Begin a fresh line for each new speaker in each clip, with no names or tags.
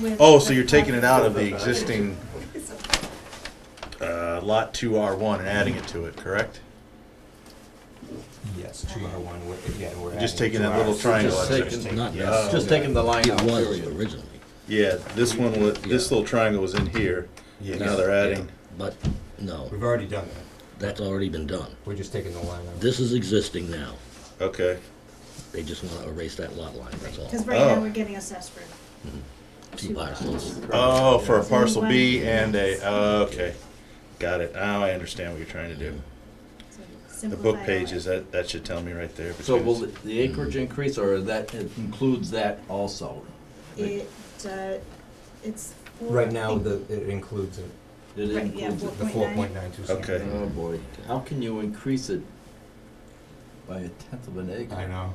with.
Oh, so you're taking it out of the existing uh, lot two R one and adding it to it, correct?
Yes, two R one, we're, yeah, we're adding.
Just taking
two
that little
Rs.
triangle.
Just
out there.
taking-
Just
not
yeah.
necessarily.
Just taking the line out,
It was
period.
originally.
Yeah, this one was, this
Yeah.
little triangle was in here,
Yes.
and now they're adding.
But, no,
We've already done that.
that's already been done.
We're just taking the line out.
This is existing now.
Okay,
They just want to erase that lot line, that's all. Mm-hmm.
Because right now,
Oh.
we're getting assessed for
Two parcels.
oh, for a parcel B and a, okay, got it, now I understand what you're trying to do. The book pages, that, that should tell me right there.
So will
because-
the acreage
Mm.
increase, or that includes that also?
It, uh, it's. four-
Right now, the, it includes it,
It
Right, yeah,
includes it.
the four
4.9.
point nine two.
Okay.
Oh, boy, how can you increase it by a tenth of an acre?
I know,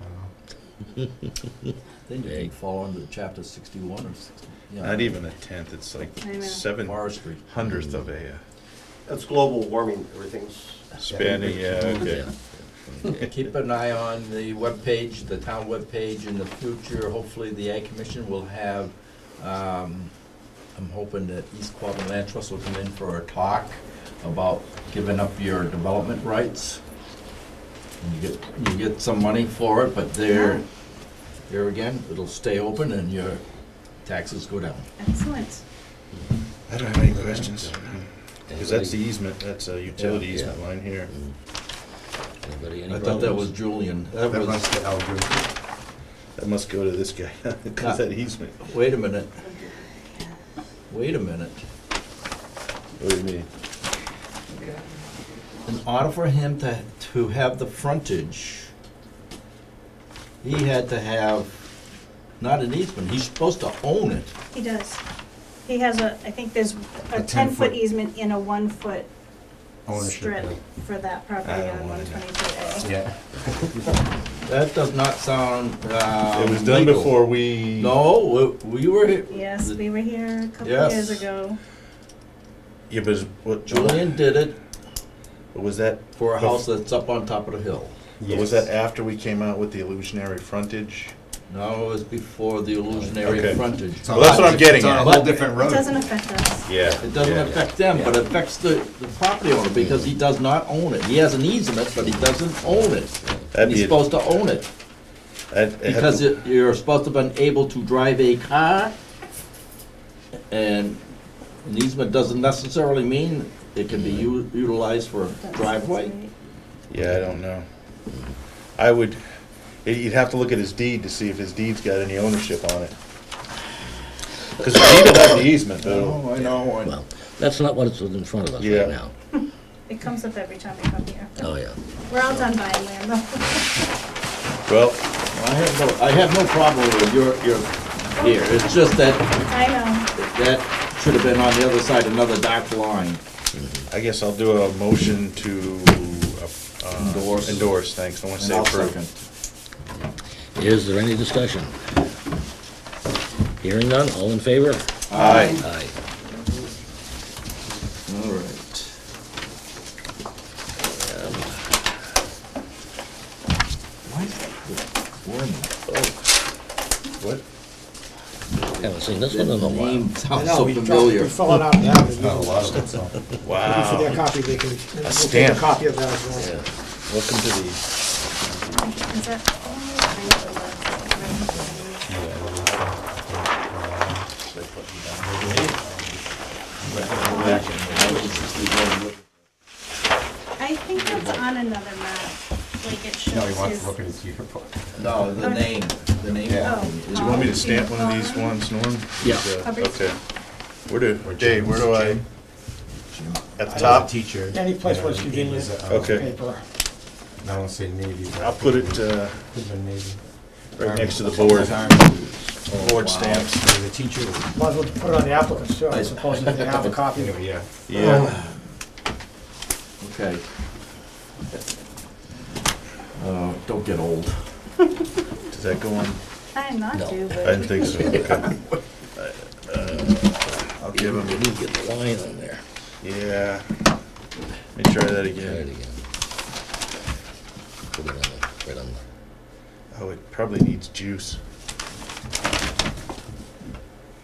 I know.
Then you can
Big.
fall under chapter sixty-one or sixty. yeah,
Not even a tenth, it's like
I know.
seven
Forestry.
hundredth of a
That's global warming, everything's.
uh, span, yeah, okay.
Yeah.
Keep an eye on the webpage, the town webpage in the future. Hopefully, the Ag Commission will have, um, I'm hoping that East Quabbin Land Trust will come in for a talk about giving up your development rights. And you get, you get some money for it, but there, there again, it'll stay open and your taxes go down.
Excellent.
I don't have any questions. Because that's the easement, that's a utility
Yeah.
easement line here.
Mm-hmm. Anybody, any
I thought that was
problems?
Julian. That
That
was,
must be Algorithm.
That must go to this guy, because that easement.
wait a minute. Wait a minute.
What do you mean?
in order for him to, to have the frontage, he had to have, not an easement, he's supposed to own it.
He does. He has a, I think there's a
A
ten-foot
10-foot.
easement in a one-foot
Ownership.
strip for that property
don't
on one
wanna do-
twenty-two A.
Yeah.
That does not sound, uh,
It was done
legal.
before we.
No, we we were,
Yes, we were here a couple
Yes.
years ago.
Yeah, but is- what,
Julian did it
was that,
for a house that's up on top of the hill.
was that after we came out with the illusionary frontage?
No, it was before the
Okay.
illusionary frontage.
It's on
Well, that's
a-
what I'm getting
It's on a
at.
whole different road.
It doesn't affect us.
Yeah.
It doesn't
yeah.
affect them, but it affects the, the property owner because he does not own it. He has an easement, but he doesn't own it. And
That'd
he's
be,
supposed to own it.
that'd have
Because
to-
it- you're supposed to have been able to drive a car, and an easement doesn't necessarily mean it can be u- utilized for a
That's-
driveway.
Yeah, I don't know. I would, y- you'd have to look at his deed to see if his deed's got any ownership on it. Because the deed will have the easement, though.
Oh, I know, I know.
Well, that's not what it's in front of us
Yeah.
right now.
It comes up every time we come here.
Oh, yeah.
We're all done buying land though.
Well,
I have no, I have no problem with your, your, here, it's just that,
I know.
that should have been on the other side, another dark line.
I guess I'll do a motion to. uh,
Endorse.
Endorse, thanks. I want to say
And I'll
approve.
second.
Is there any discussion? Hearing none, all in favor?
Aye.
Aye.
All right. Why is that warning?
What?
Haven't seen this one in a
The
while.
name
I
sounds
know,
so
we draw-
familiar.
We fill it out now. and
Not a
you-
lot of it, so.
For their
Wow.
copy, they can, we'll take
stamp.
a copy of that as well.
Yeah.
Welcome to the,
Is that? I think that's on another map, like it shows
No, he wants
his-
to look at his yearbook.
No, the name, the name.
Yeah.
Oh.
you want me to stamp one of these ones, Norm?
Yeah.
Aubrey.
Okay. Where do, Dave, where do I? At the top?
Teacher.
Any place where it's convenient.
Okay.
Paper.
um, I don't say Navy. but
I'll put it uh,
Put it in Navy.
right next to the board, board
wow.
stamps.
So The teacher,
Might as well put it on the applicants too, I suppose, if they have a copy.
anyway, yeah.
Yeah.
Okay. Uh, don't get old.
Does that go on?
I'm not
No.
due, but.
I didn't think so. Okay. Uh, I'll give
You
him,
need to get the line on there.
yeah. Let me try that
Try it
again.
again. Put it on the, right on the.
Oh, it probably needs juice.